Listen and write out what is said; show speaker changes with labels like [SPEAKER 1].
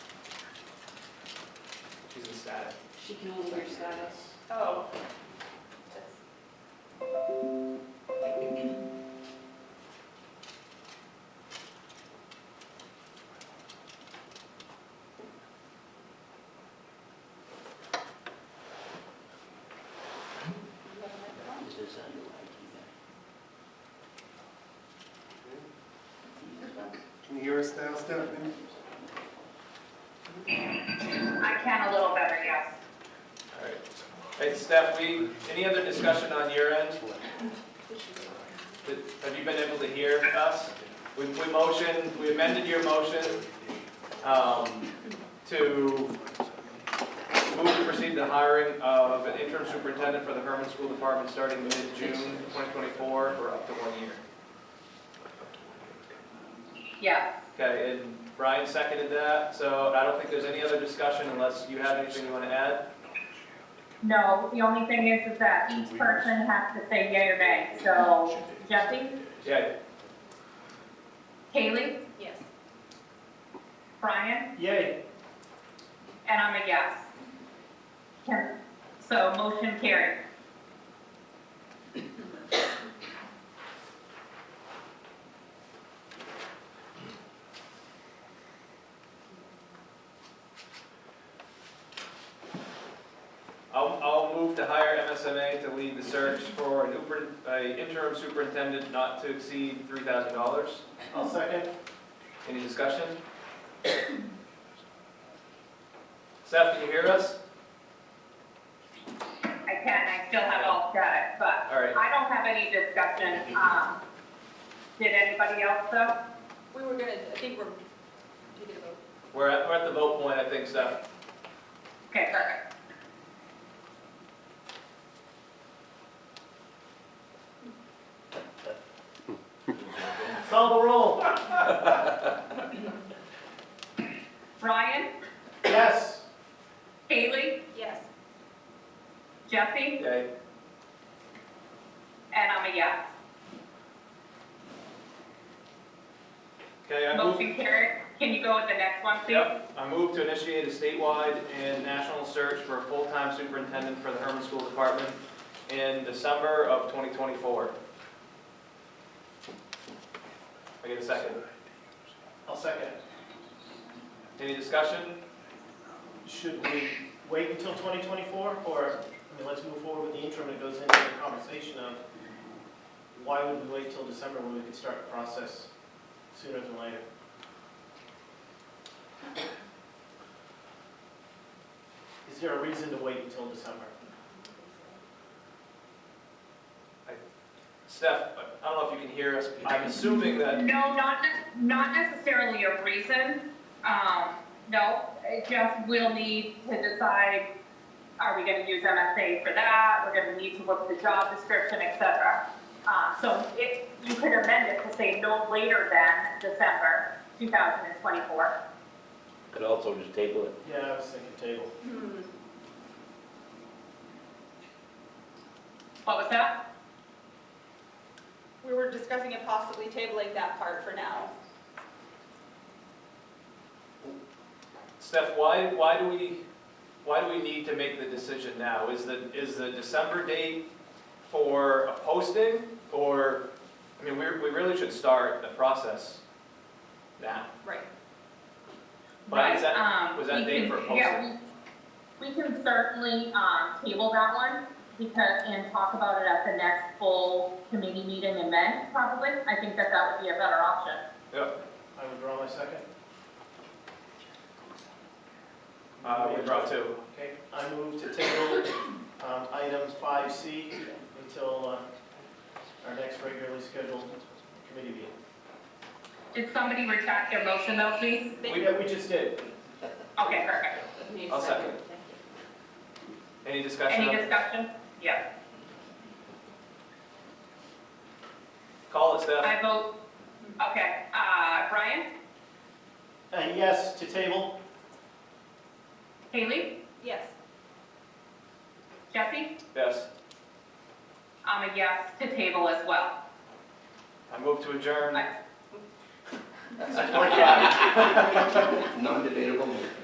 [SPEAKER 1] static.
[SPEAKER 2] She can only hear status.
[SPEAKER 3] Oh.
[SPEAKER 4] Is this on your IT guy?
[SPEAKER 1] Can you hear us now, Stephanie?
[SPEAKER 3] I can a little better, yes.
[SPEAKER 1] All right. Hey, Steph, we, any other discussion on your end? Did- Have you been able to hear us? We, we motioned, we amended your motion, um, to move to proceed the hiring of an interim superintendent for the Herman School Department starting mid-June 2024 for up to one year.
[SPEAKER 3] Yes.
[SPEAKER 1] Okay, and Brian seconded that, so I don't think there's any other discussion unless you have anything you want to add.
[SPEAKER 3] No, the only thing is, is that each person has to say yay or nay. So Jesse,
[SPEAKER 1] Yeah,
[SPEAKER 3] Kaylee,
[SPEAKER 2] Yes.
[SPEAKER 3] Brian,
[SPEAKER 1] yay.
[SPEAKER 3] and I'm a yes. Can- So motion carried.
[SPEAKER 1] I'll, I'll move to hire MSMA to lead the search for an uper- a interim superintendent not to exceed three thousand dollars.
[SPEAKER 5] I'll second.
[SPEAKER 1] Any discussion? Seth, can you hear us?
[SPEAKER 3] I can, I still have all static, but
[SPEAKER 1] All right,
[SPEAKER 3] I don't have any discussion. Um, Did anybody else though?
[SPEAKER 2] We were gonna, I think we're taking a vote.
[SPEAKER 1] we're at, we're at the vote point, I think, Seth.
[SPEAKER 3] Okay, perfect.
[SPEAKER 5] Call the roll.
[SPEAKER 3] Brian,
[SPEAKER 5] Yes.
[SPEAKER 3] Kaylee,
[SPEAKER 2] Yes.
[SPEAKER 3] Jesse,
[SPEAKER 1] Yay.
[SPEAKER 3] and I'm a yes.
[SPEAKER 1] Okay, I move.
[SPEAKER 3] Motion carried. Can you go with the next one, please?
[SPEAKER 1] Yep, I move to initiate a statewide and national search for a full-time superintendent for the Herman School Department in December of 2024. I get a second.
[SPEAKER 5] I'll second.
[SPEAKER 1] Any discussion?
[SPEAKER 5] Should we wait until 2024, or, I mean, let's move forward with the interim, it goes into the conversation of, why would we wait till December when we could start the process sooner than later? Is there a reason to wait until December?
[SPEAKER 1] Steph, I don't know if you can hear us. I'm assuming that,
[SPEAKER 3] No, not, ne- not necessarily a reason. Um, no, it just we'll need to decide, are we gonna use MSA for that? We're gonna need to look at the job description, et cetera. Uh, so it, you could amend it to say no later than December two thousand and twenty-four.
[SPEAKER 4] Could also just table it.
[SPEAKER 5] Yeah, I was thinking table.
[SPEAKER 2] Hmm.
[SPEAKER 3] What was that?
[SPEAKER 2] We were discussing it possibly tabling that part for now.
[SPEAKER 1] Steph, why, why do we, why do we need to make the decision now? Is the, is the December date for a posting? Or, I mean, we're, we really should start the process now.
[SPEAKER 2] Right.
[SPEAKER 1] But is
[SPEAKER 3] Right,
[SPEAKER 1] that-
[SPEAKER 3] um,
[SPEAKER 1] was that
[SPEAKER 3] we
[SPEAKER 1] date
[SPEAKER 3] can-
[SPEAKER 1] for
[SPEAKER 3] Yeah, we, we can certainly, um, table that one because, and talk about it at the next full committee meeting in May, probably. I think that that would be a better option.
[SPEAKER 1] Yep,
[SPEAKER 5] I withdraw my second.
[SPEAKER 1] uh, we brought two.
[SPEAKER 5] Okay, I move to table um, item 5C until uh, our next regularly scheduled committee meeting.
[SPEAKER 3] Did somebody retract their motion though, please?
[SPEAKER 1] We-
[SPEAKER 5] Yeah, we just did.
[SPEAKER 3] Okay, perfect.
[SPEAKER 2] Need a
[SPEAKER 1] I'll second. Any discussion?
[SPEAKER 3] Any
[SPEAKER 1] on-
[SPEAKER 3] discussion? Yeah,
[SPEAKER 1] Call it, Steph.
[SPEAKER 3] I vote, okay, uh, Brian,
[SPEAKER 5] Uh, yes to table.
[SPEAKER 3] Haley,
[SPEAKER 2] Yes.
[SPEAKER 3] Jesse,
[SPEAKER 1] Yes.
[SPEAKER 3] I'm a yes to table as well.
[SPEAKER 1] I move to adjourn.
[SPEAKER 3] I-
[SPEAKER 1] Six forty-five.
[SPEAKER 4] Non-debatable motion.